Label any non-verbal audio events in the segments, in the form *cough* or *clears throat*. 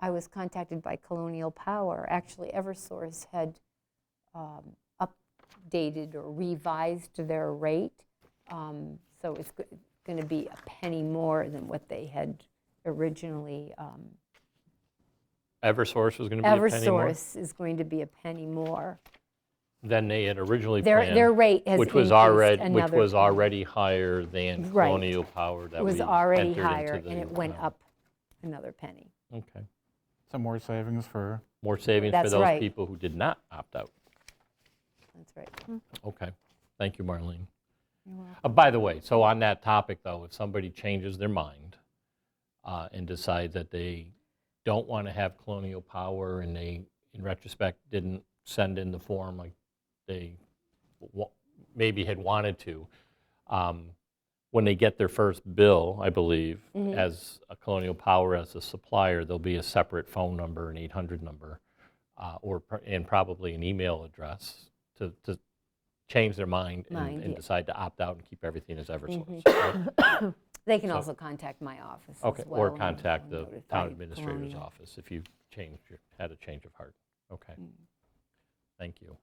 I was contacted by Colonial Power. Actually, Eversource had um, updated or revised their rate. um, So it's going to be a penny more than what they had originally. um, Eversource was going to be a penny more Eversource is going to be a penny more. than they had originally Their, their planned, rate has which increased was already, which another was penny. already higher than Right. Colonial Power that It we was entered already into higher, the and it went uh, up another penny. Okay. Some more savings for, More savings for That's those right. people who did not opt out. That's right. Okay. Thank you, Marlene. Uh, By the way, so on that topic, though, if somebody changes their mind uh, and decides that they don't want to have colonial power and they, in retrospect, didn't send in the form like they wa- maybe had wanted to, um, when they get their first bill, I believe, Mm-hmm. as a colonial power, as a supplier, there'll be a separate phone number, an 800 number, uh, or, pr- and probably an email address to, to change their mind and- Mind, and yeah. Mm-hmm. decide to opt out and keep everything as Eversource. right? They can also contact my office as well. Okay, or and contact the notify town administrator's Colonial. office if you changed, your- had a change of heart. Okay. Thank you.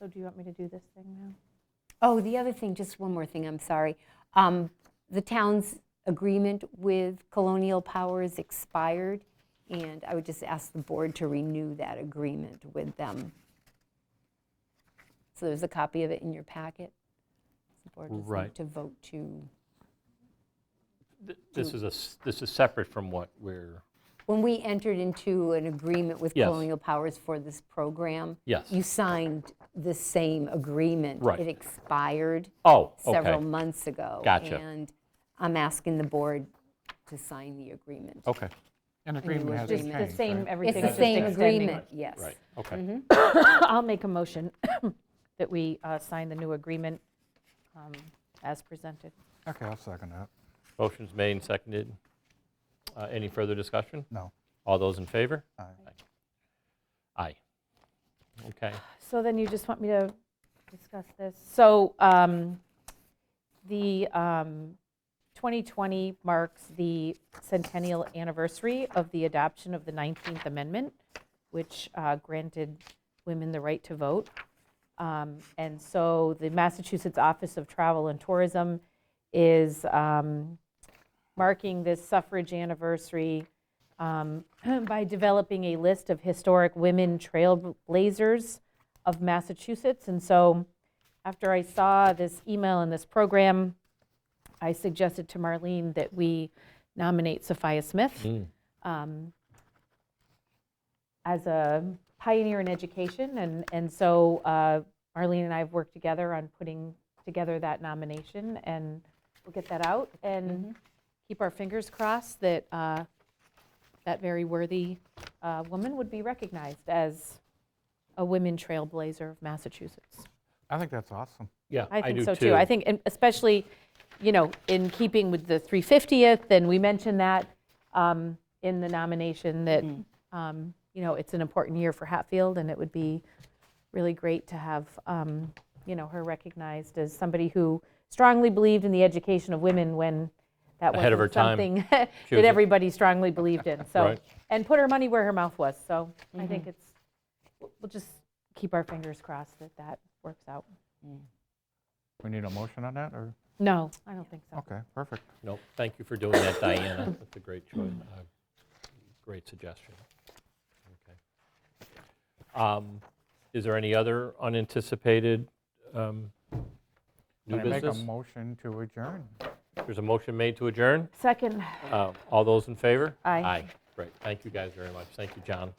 So do you want me to do this thing now? Oh, the other thing, just one more thing, I'm sorry. Um, The town's agreement with Colonial Powers expired, and I would just ask the board to renew that agreement with them. So there's a copy of it in your packet. The board just Right. need to vote to, Th- This is a, s- this is separate from what we're, when we entered into an agreement with Yes. Colonial Powers for this program, Yes. you signed the same agreement. Right. It expired. oh, several okay. months ago. Gotcha. And I'm asking the board to sign the agreement. Okay, an agreement has Just changed, The same, right? everything. It's the same agreement, yes. right, okay. *coughs* I'll make a motion *coughs* that we uh, sign the new agreement um, as presented. Okay, I'll second that. Motion's made and seconded. Uh, Any further discussion? No. All those in favor? Aye. Aye. Okay, So then you just want me to discuss this? So um, the um, 2020 marks the centennial anniversary of the adoption of the 19th Amendment, which uh, granted women the right to vote. Um, And so the Massachusetts Office of Travel and Tourism is um, marking this suffrage anniversary um, *clears throat* by developing a list of historic women trailblazers of Massachusetts. And so after I saw this email and this program, I suggested to Marlene that we nominate Sophia Smith um, as a pioneer in education. And, and so uh, Marlene and I have worked together on putting together that nomination, and we'll get that out and keep our fingers crossed that uh, that very worthy uh, woman would be recognized as a women trailblazer of Massachusetts. I think that's awesome. yeah, I I think do so too. too. I think, and especially, you know, in keeping with the 350th, and we mentioned that um, in the nomination, that, um, you know, it's an important year for Hatfield, and it would be really great to have, um, you know, her recognized as somebody who strongly believed in the education of women when that Ahead of her time. wasn't something *laughs* She was that a- everybody strongly believed in, so. Right. And put her money where her mouth was, so I think it's, we'll we'll just keep our fingers crossed that that works out. We need a motion on that, or, No, I don't think so. okay, perfect. No, thank you for doing that, Diana. That's a great choice, Mm. uh, great suggestion. Okay. Um, Is there any other unanticipated um, new Can I make a business? motion to adjourn? There's a motion made to adjourn. Second. Uh, All those in favor? Aye. Aye, great. Thank you guys very much. Thank you, John.